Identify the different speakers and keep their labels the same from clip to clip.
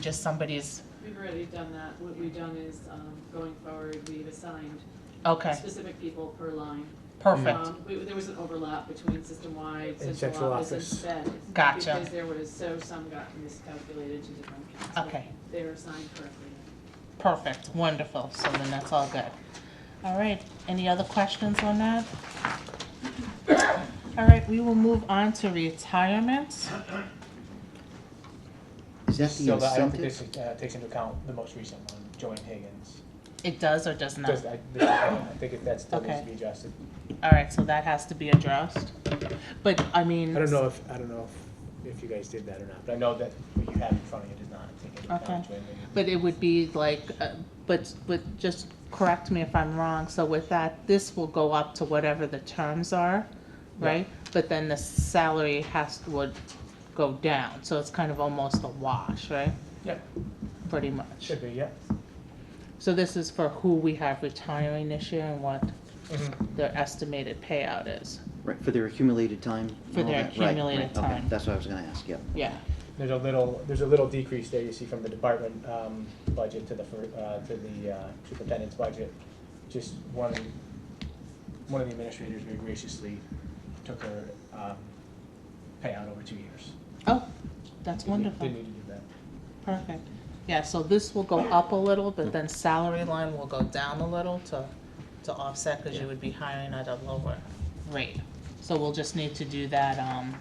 Speaker 1: just somebody's,
Speaker 2: We've already done that. What we've done is, um, going forward, we've assigned
Speaker 1: okay,
Speaker 2: specific people per line.
Speaker 1: perfect,
Speaker 2: Um, we- There was an overlap between system-wide, central
Speaker 3: And central
Speaker 2: office and
Speaker 3: office.
Speaker 2: sped.
Speaker 1: Gotcha.
Speaker 2: Because there was, so some got miscalculated to different accounts. but
Speaker 1: Okay.
Speaker 2: They were assigned correctly.
Speaker 1: perfect, wonderful, so then that's all good. All right, any other questions on that? All right, we will move on to retirement.
Speaker 4: Is that the
Speaker 3: So that- I don't think this
Speaker 4: incentive?
Speaker 3: uh, takes into account the most recent one, Joanne Higgins.
Speaker 1: It does or does not?
Speaker 3: Does- I I think if that still needs
Speaker 1: Okay.
Speaker 3: to be adjusted.
Speaker 1: All right, so that has to be addressed. But, I mean.
Speaker 3: I don't know if, I don't know if, if you guys did that or not, but I know that what you have in front of you does not take into account Joanne Higgins.
Speaker 1: But it would be like, uh, but, but just correct me if I'm wrong, so with that, this will go up to whatever the terms are, right? But then the salary has, would go down, so it's kind of almost a wash, right?
Speaker 3: Yep.
Speaker 1: Pretty much.
Speaker 3: Should be, yeah.
Speaker 1: So this is for who we have retiring this year and what
Speaker 3: Mhm.
Speaker 1: their estimated payout is,
Speaker 4: Right, for their accumulated time? and
Speaker 1: For
Speaker 4: all
Speaker 1: their
Speaker 4: that? Right, right,
Speaker 1: accumulated
Speaker 4: okay,
Speaker 1: time.
Speaker 4: That's what I was gonna ask, yep.
Speaker 1: yeah.
Speaker 3: There's a little, there's a little decrease there you see from the department um, budget to the, fir- uh, to the uh, superintendent's budget. Just one, one of the administrators very graciously took her um, payout over two years.
Speaker 1: Oh, that's
Speaker 3: Didn't-
Speaker 1: wonderful,
Speaker 3: Didn't need to do that.
Speaker 1: perfect. Yeah, so this will go up a little, but then salary line will go down a little to, to offset, cause you would be hiring at a lower rate. So we'll just need to do that, um,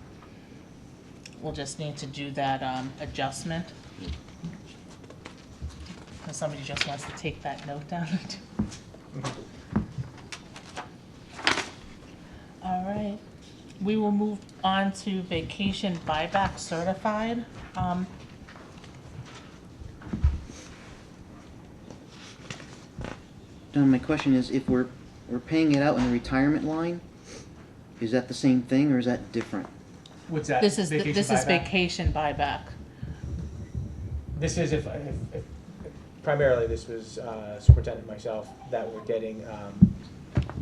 Speaker 1: we'll just need to do that, um, adjustment. If somebody just wants to take that note down. All right, we will move on to vacation buyback certified. Um,
Speaker 4: Don, my question is, if we're, we're paying it out in the retirement line, is that the same thing or is that different?
Speaker 3: What's that?
Speaker 1: This is,
Speaker 3: Vacation
Speaker 1: this is
Speaker 3: buyback?
Speaker 1: vacation buyback.
Speaker 3: This is if, if, if, primarily this was uh, superintendent, myself, that we're getting, um.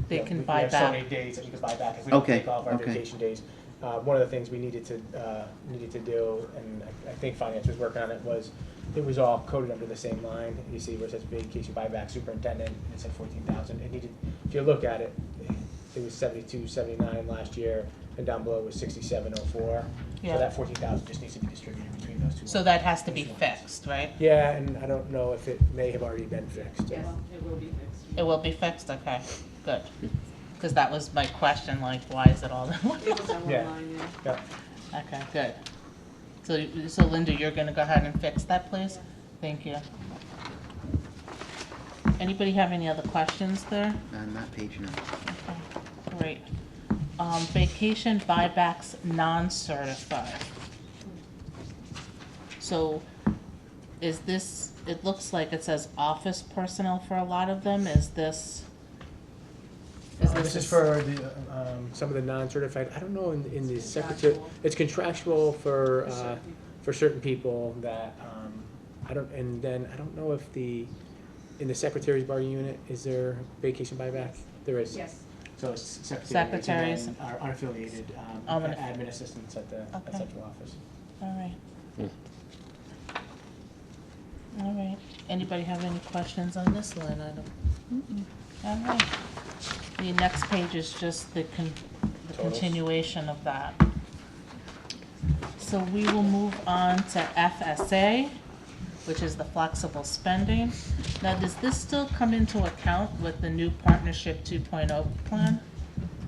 Speaker 1: They
Speaker 3: you know,
Speaker 1: can
Speaker 3: we-
Speaker 1: buy
Speaker 3: We have so
Speaker 1: back.
Speaker 3: many days that we can buy back if we don't
Speaker 4: Okay,
Speaker 3: take off our
Speaker 4: okay.
Speaker 3: vacation days. Uh, one of the things we needed to, uh, needed to do, and I, I think finance was working on it, was it was all coded under the same line. You see where it says vacation buyback superintendent, it said fourteen thousand. It needed, if you look at it, it was seventy-two, seventy-nine last year, and down below was sixty-seven oh four.
Speaker 1: Yeah.
Speaker 3: So that fourteen thousand just needs to be distributed between those two.
Speaker 1: So
Speaker 3: lines.
Speaker 1: that has to be fixed, right?
Speaker 3: Yeah, and I don't know if it may have already been fixed.
Speaker 2: Yes, it will be fixed.
Speaker 1: It will be fixed, okay, good. Because that was my question, like, why is it all in one?
Speaker 2: It was on one
Speaker 3: Yeah.
Speaker 2: line there.
Speaker 3: Yeah,
Speaker 1: Okay, good. So, so Linda, you're gonna go ahead and fix that, please? Thank you. Anybody have any other questions there?
Speaker 4: On that page, no.
Speaker 1: Okay, Great. Um, vacation buybacks non-certified. So is this, it looks like it says office personnel for a lot of them, is this?
Speaker 3: Uh, This is for the, um, some of the non-certified, I don't know, in, in the secretary,
Speaker 2: Contractual.
Speaker 3: it's contractual for,
Speaker 2: For
Speaker 3: uh,
Speaker 2: certain people.
Speaker 3: for certain people that, um, I don't, and then, I don't know if the, in the secretary's bar unit, is there vacation buyback? There is.
Speaker 2: Yes,
Speaker 3: So it's secretaries
Speaker 1: Secretaries.
Speaker 3: and then our unaffiliated, um,
Speaker 1: Um, and-
Speaker 3: admin assistants at the, at
Speaker 1: Okay.
Speaker 3: central office.
Speaker 1: All right. All right, anybody have any questions on this line item? All right, the next page is just the con- the
Speaker 3: Totals.
Speaker 1: continuation of that. So we will move on to FSA, which is the flexible spending. Now, does this still come into account with the new partnership two oh plan?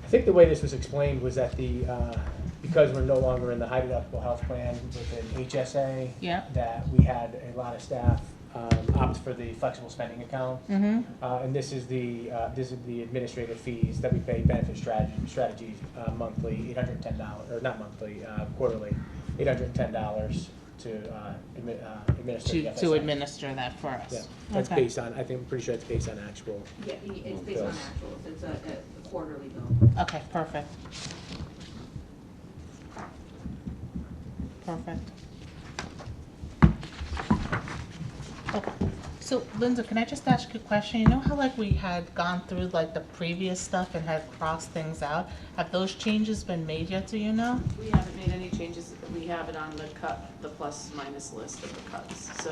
Speaker 3: I think the way this was explained was that the, uh, because we're no longer in the high deductible health plan within HSA,
Speaker 1: Yeah?
Speaker 3: that we had a lot of staff um, opt for the flexible spending account.
Speaker 1: Mm-hmm.
Speaker 3: Uh, And this is the, uh, this is the administrative fees that we pay benefit strategy, strategies uh, monthly, eight hundred and ten dollars, or not monthly, uh, quarterly, eight hundred and ten dollars to uh, admi- uh, administer the
Speaker 1: To, to
Speaker 3: FSA.
Speaker 1: administer that for us.
Speaker 3: Yeah, that's
Speaker 1: Okay.
Speaker 3: based on, I think, I'm pretty sure it's based on actual.
Speaker 5: Yeah, i- it's based on
Speaker 3: Yes.
Speaker 5: actuals, it's a a quarterly bill.
Speaker 1: Okay, perfect. Perfect. Okay, So Linda, can I just ask you a question? You know how like we had gone through like the previous stuff and had crossed things out? Have those changes been made yet, do you know?
Speaker 2: we haven't made any changes. We have it on the cut, the plus minus list of the cuts, so.